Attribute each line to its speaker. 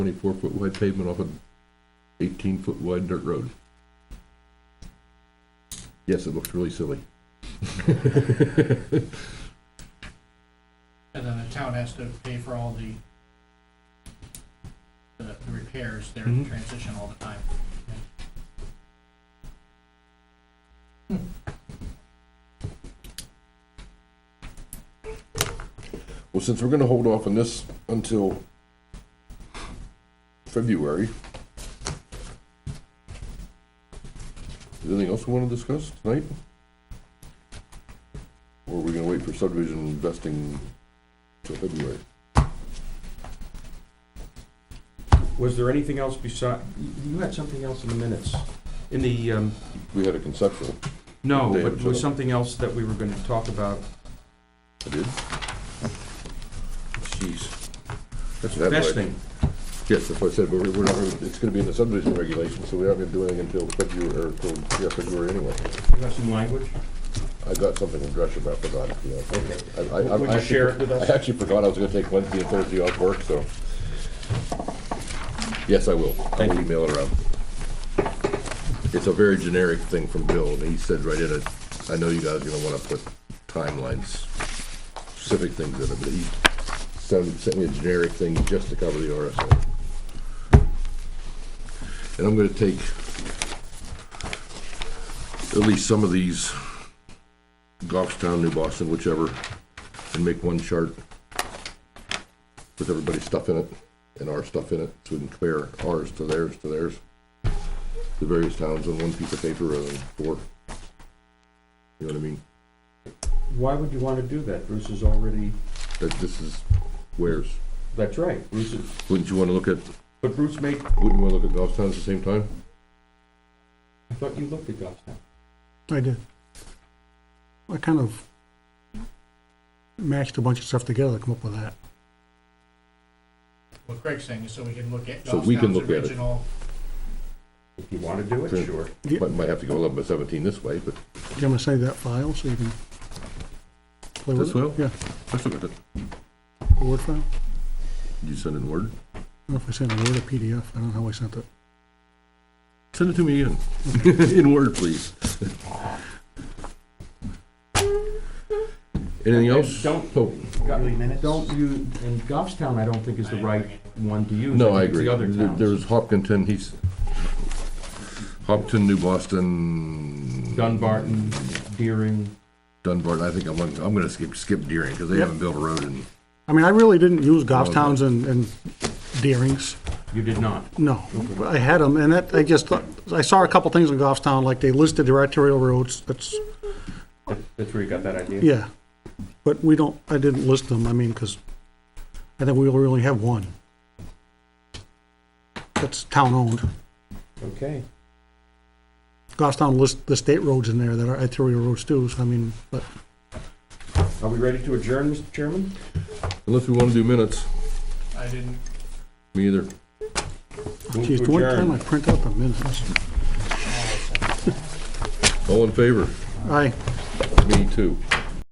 Speaker 1: twenty-four foot wide pavement off an eighteen foot wide dirt road. Yes, it looks really silly.
Speaker 2: And then the town has to pay for all the the the repairs, they're in
Speaker 1: Mhm.
Speaker 2: transition all the time.
Speaker 1: Well, since we're gonna hold off on this until February. Is there Anything else we wanna discuss tonight? Or are we gonna wait for subdivision investing till February?
Speaker 3: Was there anything else beside, you had something else in the minutes, in the, um,
Speaker 1: We had a conceptual,
Speaker 3: no,
Speaker 1: David,
Speaker 3: but
Speaker 1: shut up.
Speaker 3: was something else that we were gonna talk about?
Speaker 1: I did. Jeez. That's what I-
Speaker 3: Vesting,
Speaker 1: Yes, that's what I said, but we're we're not, it's gonna be in the subdivision regulations, so we're not gonna do anything until February, or till, yeah, February anyway.
Speaker 3: you have some language?
Speaker 1: I got something in Gresham, I forgot it, you know. I- I- I-
Speaker 3: Would
Speaker 1: I
Speaker 3: you
Speaker 1: actually-
Speaker 3: share it with us?
Speaker 1: I actually forgot I was gonna take Wednesday and Thursday off work, so. Yes, I will. I
Speaker 3: Thank
Speaker 1: will
Speaker 3: you.
Speaker 1: email it around. It's a very generic thing from Bill, and he said right in it, I know you guys are gonna wanna put timelines, specific things in it, but he sent, sent me a generic thing just to cover the RSA. And I'm gonna take at least some of these Goffstown, New Boston, whichever, and make one chart with everybody's stuff in it and our stuff in it, so we can compare ours to theirs to theirs. The various towns on one piece of paper rather than four. You know what I mean?
Speaker 3: Why would you wanna do that? Bruce is already,
Speaker 1: That this is where's.
Speaker 3: that's right, Bruce is,
Speaker 1: Wouldn't you wanna look at,
Speaker 3: but Bruce made,
Speaker 1: wouldn't you wanna look at Goffstown at the same time?
Speaker 3: I thought you looked at Goffstown.
Speaker 4: I did. I kind of matched a bunch of stuff together to come up with that.
Speaker 2: What Greg's saying is so we can look at
Speaker 1: So we can
Speaker 2: Goffstown's
Speaker 1: look at it.
Speaker 2: original,
Speaker 3: If you wanna do
Speaker 1: Sure.
Speaker 3: it, sure.
Speaker 1: Might, might have to go eleven by seventeen this way, but
Speaker 4: Do you want me to save that file so you can play with
Speaker 1: This
Speaker 4: it?
Speaker 1: will?
Speaker 4: Yeah,
Speaker 1: let's look at it.
Speaker 4: a Word file. I
Speaker 1: You send it in Word?
Speaker 4: don't know if I sent a Word or PDF. I don't know how I sent it.
Speaker 1: Send it to me again. In Word, please. Anything else?
Speaker 3: Don't-
Speaker 1: Oh,
Speaker 3: Don't you, and Goffstown, I don't think is the right one to use.
Speaker 1: No, I
Speaker 3: think it's
Speaker 1: agree.
Speaker 3: The other
Speaker 1: There-
Speaker 3: towns.
Speaker 1: There's Hopkinton, he's, Hopkinton, New Boston,
Speaker 3: Dunbarton, Deering,
Speaker 1: Dunbar, I think I'm, gonna- I'm gonna skip, skip Deering, because they
Speaker 4: Yep.
Speaker 1: haven't built a road in,
Speaker 4: I mean, I really didn't use
Speaker 1: Oh, No, no.
Speaker 4: Goffstown's and, and Deering's.
Speaker 3: you did not.
Speaker 4: No, but I had them, and that, I just, thought- I saw a couple things in Goffstown, like they listed their arterial roads. That's,
Speaker 3: That- That's where you got that idea?
Speaker 4: yeah. But we don't, I didn't list them, I mean, because I think we only really have one. That's town-owned.
Speaker 3: Okay.
Speaker 4: Goffstown lists the state roads in there that are arterial roads too, so I mean, but
Speaker 3: Are we ready to adjourn, Mr. Chairman?
Speaker 1: unless we wanna do minutes,
Speaker 2: I didn't,
Speaker 1: me either.
Speaker 3: Move
Speaker 4: geez,
Speaker 3: to
Speaker 4: the one
Speaker 3: adjourn.
Speaker 4: time I print out the minutes.
Speaker 1: All in favor?
Speaker 4: Aye.
Speaker 1: Me too.